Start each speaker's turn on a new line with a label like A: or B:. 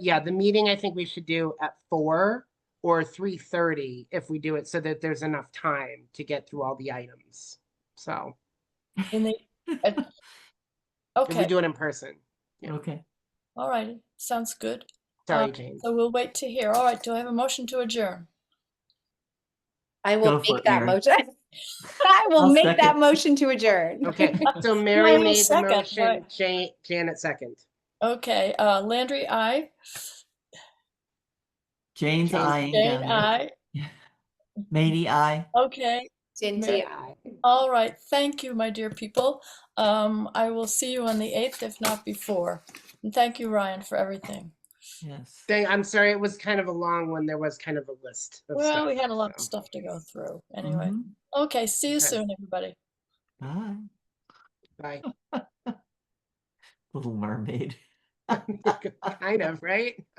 A: Yeah, the meeting I think we should do at four or three thirty if we do it so that there's enough time to get through all the items. So
B: And they,
A: if we
B: okay,
A: do it in person. Yeah.
C: Okay,
B: all right, sounds good.
A: Sorry,
B: Um,
A: James.
B: So we'll wait to hear. All right, do I have a motion to adjourn?
D: I
C: Go
D: will
C: for
D: make
C: it,
D: that
C: Mary.
D: motion. I will
C: I'll
D: make that
C: second.
D: motion to adjourn.
A: Okay, so
B: I
A: Mary
B: will
A: made the
B: second,
A: motion,
B: but-
A: Jan- Janet second.
B: Okay, uh, Landry, aye.
C: Jane's
A: Jane's-
C: eyeing down
B: Jane,
C: there.
B: aye.
C: Matey, aye.
B: Okay,
D: Cindy, I.
B: all right, thank you, my dear people. Um, I will see you on the eighth, if not before. And thank you, Ryan, for everything.
C: Yes.
A: Dang, I'm sorry, it was kind of a long one. There was kind of a list. of
B: Well,
A: stuff,
B: we had a lot of
A: so.
B: stuff to go through, anyway.
C: Mhm.
B: Okay, see you
A: Okay.
B: soon, everybody.
C: Bye,
A: Bye.
C: Little Mermaid.
A: Kind of, right?